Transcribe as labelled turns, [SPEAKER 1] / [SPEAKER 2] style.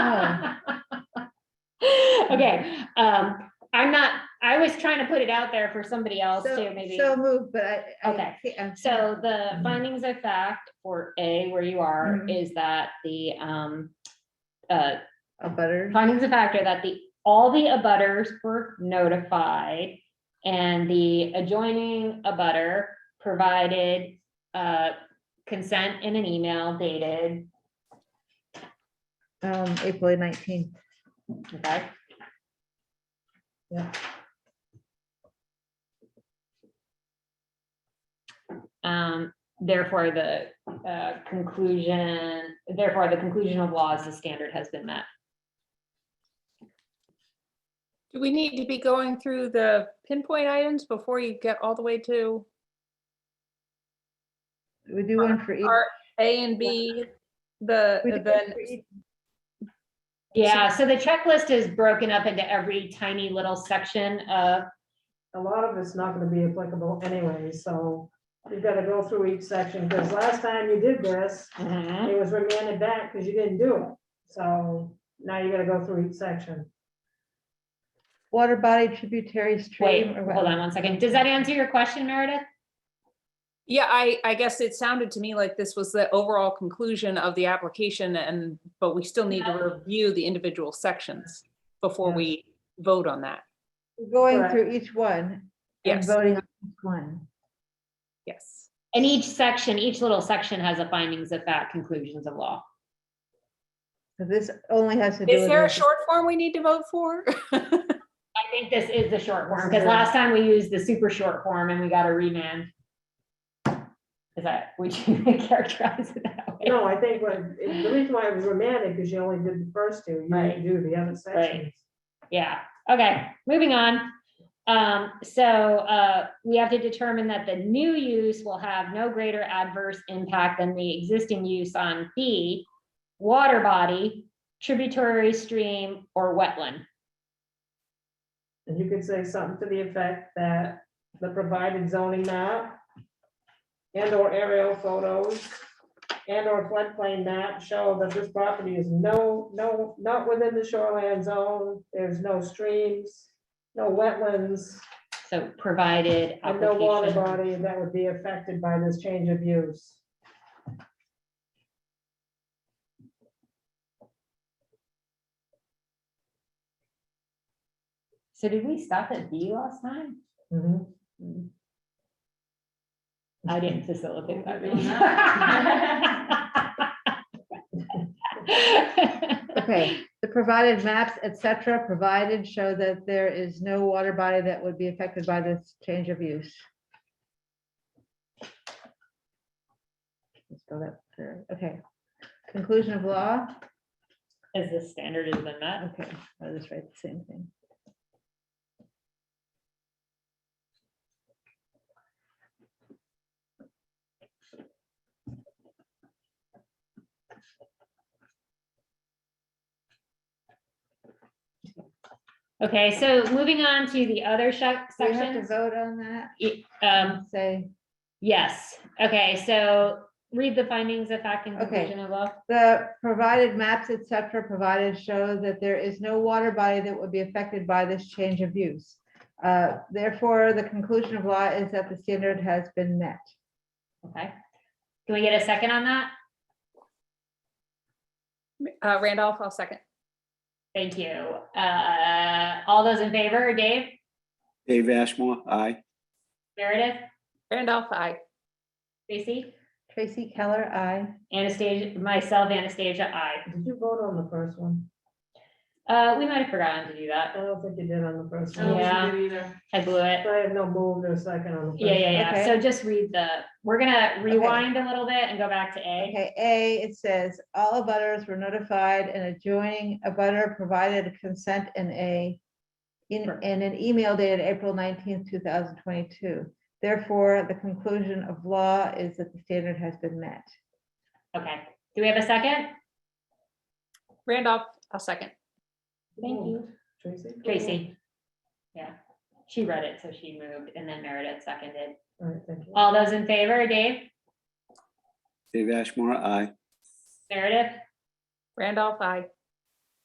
[SPEAKER 1] Okay, um, I'm not, I was trying to put it out there for somebody else
[SPEAKER 2] So-
[SPEAKER 1] too, maybe.
[SPEAKER 2] So moved, but I. I
[SPEAKER 1] Okay.
[SPEAKER 2] thi- I'm-
[SPEAKER 1] So the findings of fact for A, where you are,
[SPEAKER 2] Mhm.
[SPEAKER 1] is that the, um, uh,
[SPEAKER 2] A butter.
[SPEAKER 1] findings of fact are that the, all the abutters were notified and the adjoining abutter provided, uh, consent in an email dated,
[SPEAKER 2] Um, April nineteenth.
[SPEAKER 1] okay?
[SPEAKER 2] Yeah.
[SPEAKER 1] Um, therefore, the, uh, conclusion, therefore, the conclusion of law is the standard has been met.
[SPEAKER 3] Do we need to be going through the pinpoint items before you get all the way to
[SPEAKER 2] We do one for each.
[SPEAKER 3] our A and B? The,
[SPEAKER 2] we do one
[SPEAKER 3] then,
[SPEAKER 2] for each.
[SPEAKER 1] Yeah, so the checklist is broken up into every tiny little section of,
[SPEAKER 4] a lot of it's not gonna be applicable anyway, so you've gotta go through each section, because last time you did this, it was remanded back because you didn't do it. So now you gotta go through each section.
[SPEAKER 2] Water body tributary
[SPEAKER 1] wait,
[SPEAKER 2] stream. or
[SPEAKER 1] hold on one second. Does that answer your question, Meredith?
[SPEAKER 3] yeah, I, I guess it sounded to me like this was the overall conclusion of the application and, but we still need to review the individual sections before
[SPEAKER 4] Yes.
[SPEAKER 3] we vote on that.
[SPEAKER 2] what- Going
[SPEAKER 4] Correct.
[SPEAKER 2] through each one. and
[SPEAKER 3] Yes,
[SPEAKER 2] Voting on each one.
[SPEAKER 3] yes.
[SPEAKER 1] And each section, each little section has a findings of fact, conclusions of law.
[SPEAKER 2] So This only has to do.
[SPEAKER 3] Is
[SPEAKER 2] with
[SPEAKER 3] there a
[SPEAKER 2] this.
[SPEAKER 3] short form we need to vote for?
[SPEAKER 1] I think this is the short form,
[SPEAKER 4] This
[SPEAKER 1] because
[SPEAKER 4] is-
[SPEAKER 1] last time we used the super short form and we got a remand. Is that, would you characterize it that way?
[SPEAKER 4] No, I think what, the reason why it was remanded, because you only did the first two, you
[SPEAKER 1] Right.
[SPEAKER 4] didn't do the other sections.
[SPEAKER 1] Yeah, okay, moving on. Um, so, uh, we have to determine that the new use will have no greater adverse impact than the existing use on B, water body, tributary stream, or wetland.
[SPEAKER 4] And you could say something to the effect that the provided zoning map and or aerial photos and or floodplain map show that this property is no, no, not within the shoreline zone. There's no streams, no wetlands,
[SPEAKER 1] So provided
[SPEAKER 4] and no water
[SPEAKER 1] application.
[SPEAKER 4] body that would be affected by this change of use.
[SPEAKER 1] So did we stop at B last time?
[SPEAKER 2] Mm-hmm.
[SPEAKER 1] I didn't facilitate that. meeting.
[SPEAKER 2] Okay, the provided maps, et cetera, provided show that there is no water body that would be affected by this change of use. Let's go that through. Okay, conclusion of law,
[SPEAKER 1] Is the standard has been met?
[SPEAKER 2] okay, I'll just write the same thing.
[SPEAKER 1] Okay, so moving on to the other shec-
[SPEAKER 2] Do we have to
[SPEAKER 1] sections.
[SPEAKER 2] vote on that?
[SPEAKER 1] Y- Um,
[SPEAKER 2] Say,
[SPEAKER 1] yes, okay, so read the findings of fact and
[SPEAKER 2] Okay.
[SPEAKER 1] conclusion of law.
[SPEAKER 2] the provided maps, et cetera, provided show that there is no water body that would be affected by this change of use. Uh, Therefore, the conclusion of law is that the standard has been met.
[SPEAKER 1] Okay. Can we get a second on that?
[SPEAKER 3] Uh, Randolph, I'll second.
[SPEAKER 1] Thank you. Uh, all those in favor, Dave,
[SPEAKER 5] Dave Ashmore, aye.
[SPEAKER 1] Meredith,
[SPEAKER 3] Randolph, I.
[SPEAKER 1] Stacy,
[SPEAKER 2] Tracy Keller, I.
[SPEAKER 1] Anastasia, myself, Anastasia, I.
[SPEAKER 4] Did you vote on the first one?
[SPEAKER 1] Uh, we might have forgotten to do that.
[SPEAKER 4] I don't think you did on the first
[SPEAKER 1] I don't
[SPEAKER 4] one.
[SPEAKER 1] think you I blew it.
[SPEAKER 4] I have no move or second on the first.
[SPEAKER 1] Yeah, yeah, yeah.
[SPEAKER 2] Okay.
[SPEAKER 1] So just read the, we're gonna rewind a little bit and go back to A.
[SPEAKER 2] Okay, A, it says, all abutters were notified and adjoining abutter provided consent in a, in, in an email dated April nineteenth, two thousand twenty-two. Therefore, the conclusion of law is that the standard has been met.
[SPEAKER 1] Okay. Do we have a second?
[SPEAKER 3] Randolph, I'll second.
[SPEAKER 1] Thank you.
[SPEAKER 4] Tracy?
[SPEAKER 1] Tracy. Yeah, she read it, so she moved and then Meredith seconded.
[SPEAKER 4] All right, thank you.
[SPEAKER 1] All those in favor, Dave,
[SPEAKER 5] Dave Ashmore, aye.
[SPEAKER 1] Meredith,
[SPEAKER 3] Randolph, I.